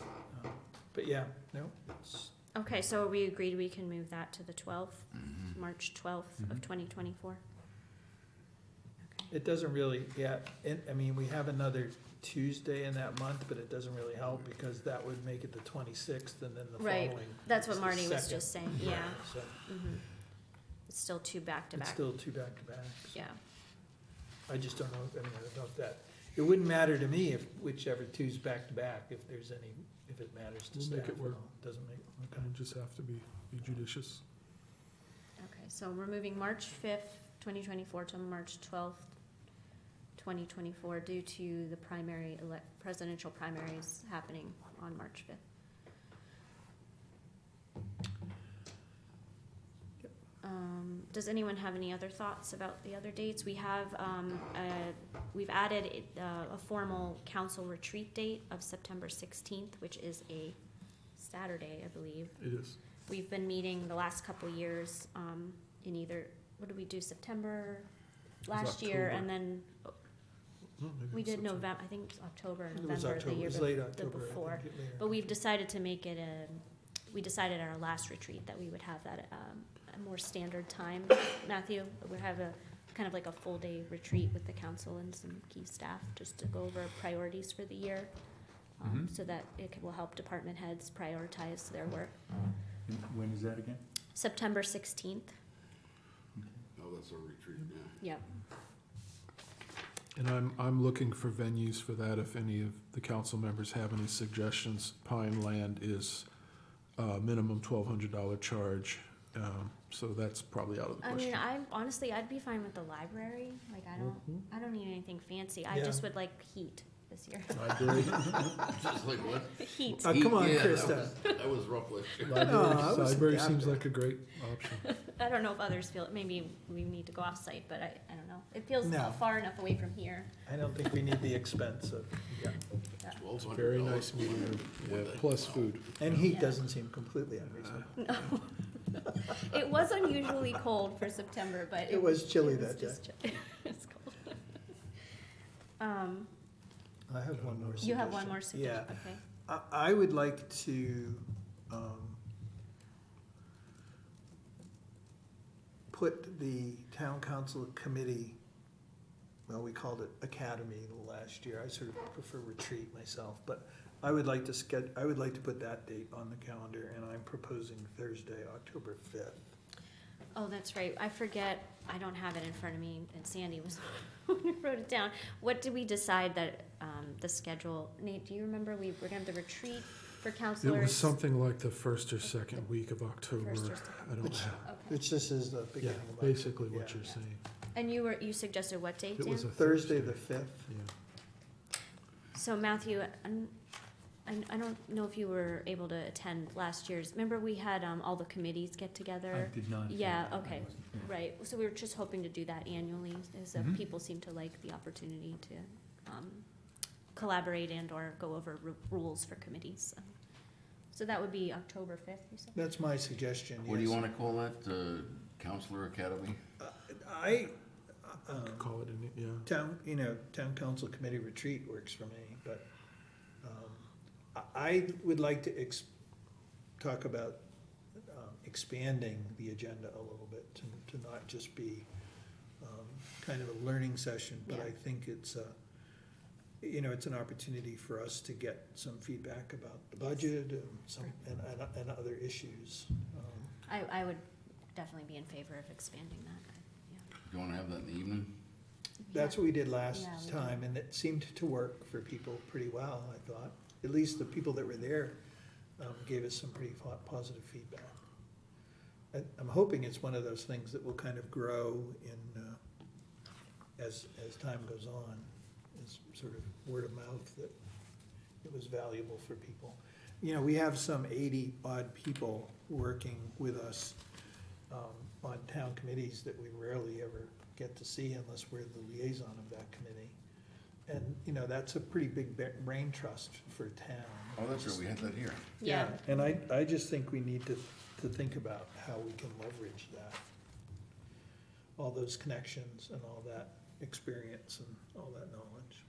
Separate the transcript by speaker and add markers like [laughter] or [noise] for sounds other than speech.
Speaker 1: Um, But yeah, no, it's,
Speaker 2: Okay, so we agreed we can move that to the twelfth,
Speaker 1: Mm-hmm.
Speaker 2: March twelfth of
Speaker 1: Mhm.
Speaker 2: twenty twenty-four?
Speaker 1: it doesn't really, yeah, and, I mean, we have another Tuesday in that month, but it doesn't really help because that would make it the twenty-sixth and then the
Speaker 2: Right.
Speaker 1: following.
Speaker 2: That's what
Speaker 1: is the
Speaker 2: Marty was
Speaker 1: second.
Speaker 2: just saying, yeah.
Speaker 1: So
Speaker 2: Mhm. It's still two
Speaker 1: it's
Speaker 2: back-to-back,
Speaker 1: still two back-to-backs.
Speaker 2: yeah.
Speaker 1: I just don't know, I mean, I don't know if that, it wouldn't matter to me if whichever two's back-to-back, if there's any, if it matters to
Speaker 3: We'll
Speaker 1: staff.
Speaker 3: make it
Speaker 1: at
Speaker 3: work. Mm-hmm.
Speaker 1: all. Doesn't make, okay.
Speaker 3: Kind of just have to be be judicious.
Speaker 2: Okay, so we're moving March fifth, twenty twenty-four to March twelfth, twenty twenty-four due to the primary elec presidential primaries happening on March fifth. Um, does anyone have any other thoughts about the other dates? We have, um, uh, we've added it, uh, a formal council retreat date of September sixteenth, which is a Saturday, I believe.
Speaker 3: It is.
Speaker 2: We've been meeting the last couple years, um, in either, what did we do, September
Speaker 3: was
Speaker 2: last year,
Speaker 3: October.
Speaker 2: and then
Speaker 4: Hmm.
Speaker 3: No, maybe
Speaker 2: we
Speaker 3: it's
Speaker 2: did
Speaker 3: September.
Speaker 2: November, I think it was October, or
Speaker 1: It was
Speaker 2: November
Speaker 1: October,
Speaker 2: the
Speaker 1: it
Speaker 2: year
Speaker 1: was late
Speaker 2: before.
Speaker 1: October, I
Speaker 2: before.
Speaker 1: think, it later.
Speaker 2: But we've decided to make it a, we decided at our last retreat that we would have that, um, a more standard time, Matthew. We have a, kind of like a full day retreat with the council and some key staff, just to go over priorities for the year. Um,
Speaker 5: Mhm.
Speaker 2: so that it can- will help department heads prioritize their work.
Speaker 5: And When is that again?
Speaker 2: September sixteenth,
Speaker 4: No, Oh, that's a retreat, yeah.
Speaker 2: yep.
Speaker 3: And I'm, I'm looking for venues for that, if any of the council members have any suggestions. Pine Land is a minimum twelve hundred dollar charge, um, so that's probably out of the
Speaker 2: I mean,
Speaker 3: question.
Speaker 2: I honestly, I'd be fine with the library. Like, I don't,
Speaker 3: Mhm.
Speaker 2: I don't need anything fancy. I
Speaker 1: Mm-hmm. Yeah.
Speaker 2: just would like heat this
Speaker 1: [laughs]
Speaker 2: year. [laughs]
Speaker 3: Library,
Speaker 4: Just like what?
Speaker 2: heat.
Speaker 1: Uh, come on,
Speaker 4: Yeah, that
Speaker 1: Krista.
Speaker 4: was- That was rough last year.
Speaker 1: I
Speaker 3: library,
Speaker 1: was
Speaker 3: library seems
Speaker 1: adapting.
Speaker 3: like a great option.
Speaker 2: I don't know if others feel maybe we need to go off site, but I, I don't know. It feels
Speaker 1: No.
Speaker 2: far enough away from here. [laughs]
Speaker 1: I don't think we need the expense of, yeah,
Speaker 4: Twelve hundred
Speaker 3: Very nice meeting room, yeah, plus food.
Speaker 1: and heat
Speaker 2: Yeah.
Speaker 1: doesn't seem completely unreasonable.
Speaker 3: Uh,
Speaker 1: [laughs]
Speaker 2: It was unusually cold for September, but
Speaker 1: It was chilly
Speaker 2: it was
Speaker 1: that day.
Speaker 2: just chi- [laughs] it's cold. um,
Speaker 1: I have one more suggestion.
Speaker 2: you have one more suggestion? Okay.
Speaker 1: Yeah, I, I would like to, um, put the town council committee, well, we called it academy last year, I sort of prefer retreat myself, but I would like to sched, I would like to put that date on the calendar, and I'm proposing Thursday, October fifth.
Speaker 2: Oh, that's right. I forget. I don't have it in front of me, and Sandy was [laughs] the one who wrote it down. What did we decide that um, the schedule? Nate, do you remember? We were gonna have the retreat for
Speaker 3: It
Speaker 2: counselors.
Speaker 3: was something like the first or second week of October,
Speaker 2: First or second.
Speaker 3: I don't have,
Speaker 2: Okay.
Speaker 1: Which this is the
Speaker 3: yeah,
Speaker 1: beginning of.
Speaker 3: basically what
Speaker 1: yeah.
Speaker 3: you're saying.
Speaker 2: And you were you suggested what date,
Speaker 3: It
Speaker 2: Dan?
Speaker 3: was a
Speaker 1: Thursday, the fifth.
Speaker 3: Yeah.
Speaker 2: so Matthew, I'm, I I don't know if you were able to attend last year's. Remember, we had um, all the committees get
Speaker 5: I
Speaker 2: together.
Speaker 5: did not.
Speaker 2: yeah,
Speaker 5: I
Speaker 2: okay.
Speaker 5: wasn't here.
Speaker 2: Right, so we were just hoping to do that annually, as uh,
Speaker 5: Mhm.
Speaker 2: people seem to like the opportunity to um, collaborate and or go over ru- rules for committees. so. So that would be October fifth, you said?
Speaker 1: That's my suggestion,
Speaker 4: What do you
Speaker 1: yes. Uh,
Speaker 4: wanna call that, uh, counselor academy?
Speaker 1: I, um,
Speaker 3: Call it, an- yeah.
Speaker 1: town, you know, town council committee retreat works for me, but, um, I, I would like to ex, talk about, um, expanding the agenda a little bit to, to not just be, um, kind of a learning session, but I
Speaker 2: Yeah.
Speaker 1: think it's a, you know, it's an opportunity for us to get some feedback about the budget and some, and, and, and other issues. Um,
Speaker 2: I, I would definitely be in favor of expanding that. I-
Speaker 4: Do you wanna have that in the evening?
Speaker 2: yeah.
Speaker 1: That's what we did last
Speaker 2: Yeah, we did.
Speaker 1: time, and it seemed to work for people pretty well, I thought. At least the people that were there um, gave us some pretty fo- positive feedback. I- I'm hoping it's one of those things that will kind of grow in, uh, as, as time goes on, is sort of word of mouth that it was valuable for people. You know, we have some eighty odd people working with us um, on town committees that we rarely ever get to see unless we're the liaison of that committee. And, you know, that's a pretty big ba- brain trust for a town.
Speaker 4: Oh, that's right, we had that here.
Speaker 2: Yeah,
Speaker 1: And I, I just think we need to, to think about how we can leverage that. All those connections and all that experience and all that knowledge.